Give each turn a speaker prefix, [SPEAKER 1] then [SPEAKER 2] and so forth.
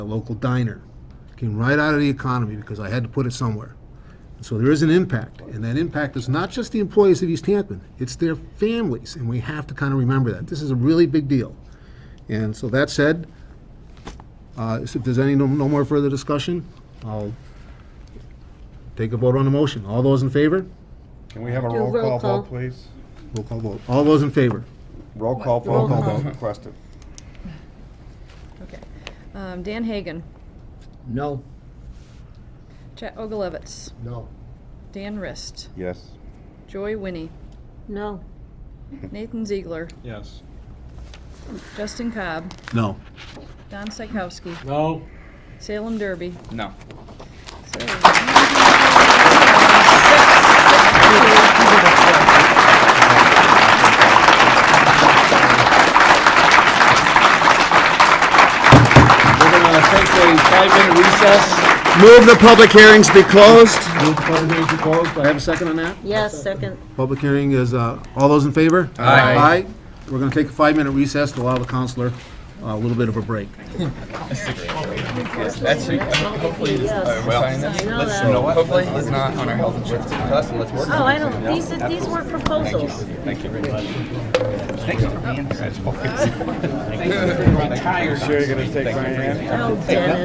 [SPEAKER 1] a local diner. Came right out of the economy because I had to put it somewhere. And So there is an impact, and that impact is not just the employees of East Hampton, it's their families, and we have to kind of remember that. This is a really big deal. And so that said, uh, if there's any, no no more further discussion, I'll take a vote on the motion. All those in favor?
[SPEAKER 2] Can we have a
[SPEAKER 3] Do
[SPEAKER 2] roll
[SPEAKER 3] roll
[SPEAKER 2] call
[SPEAKER 3] call.
[SPEAKER 2] vote, please?
[SPEAKER 1] Roll call vote. All those in favor?
[SPEAKER 2] Roll call
[SPEAKER 3] Roll
[SPEAKER 2] vote
[SPEAKER 3] call.
[SPEAKER 2] as requested.
[SPEAKER 3] Okay. Um, Dan Hagan,
[SPEAKER 4] No.
[SPEAKER 3] Chet Ogilvitz,
[SPEAKER 1] No.
[SPEAKER 3] Dan Rist,
[SPEAKER 2] Yes.
[SPEAKER 3] Joy Winnie,
[SPEAKER 5] No.
[SPEAKER 3] Nathan Ziegler,
[SPEAKER 6] Yes.
[SPEAKER 3] Justin Cobb,
[SPEAKER 1] No.
[SPEAKER 3] Don Psychowski,
[SPEAKER 6] No.
[SPEAKER 3] Salem Derby.
[SPEAKER 6] No.
[SPEAKER 3] So-
[SPEAKER 6] We're gonna take a five-minute recess.
[SPEAKER 1] Move the public hearings be closed.
[SPEAKER 6] Move the public hearing to close. Do I have a second?
[SPEAKER 1] Second on that?
[SPEAKER 5] Yes, second.
[SPEAKER 1] Public hearing is, uh, all those in favor?
[SPEAKER 6] Aye.
[SPEAKER 1] Aye. We're going to take a five-minute recess to allow the counselor uh, a little bit of a break.
[SPEAKER 7] Actually, hopefully, this, uh, well,
[SPEAKER 5] I know
[SPEAKER 7] let's,
[SPEAKER 5] that.
[SPEAKER 7] you know what, hopefully it's not on our health insurance cost and let's work.
[SPEAKER 5] Oh, I don't, these, these were proposals.
[SPEAKER 7] Thank you very much. Thank you for being here.
[SPEAKER 2] Sure you're gonna take my hand?
[SPEAKER 5] Oh, Dennis.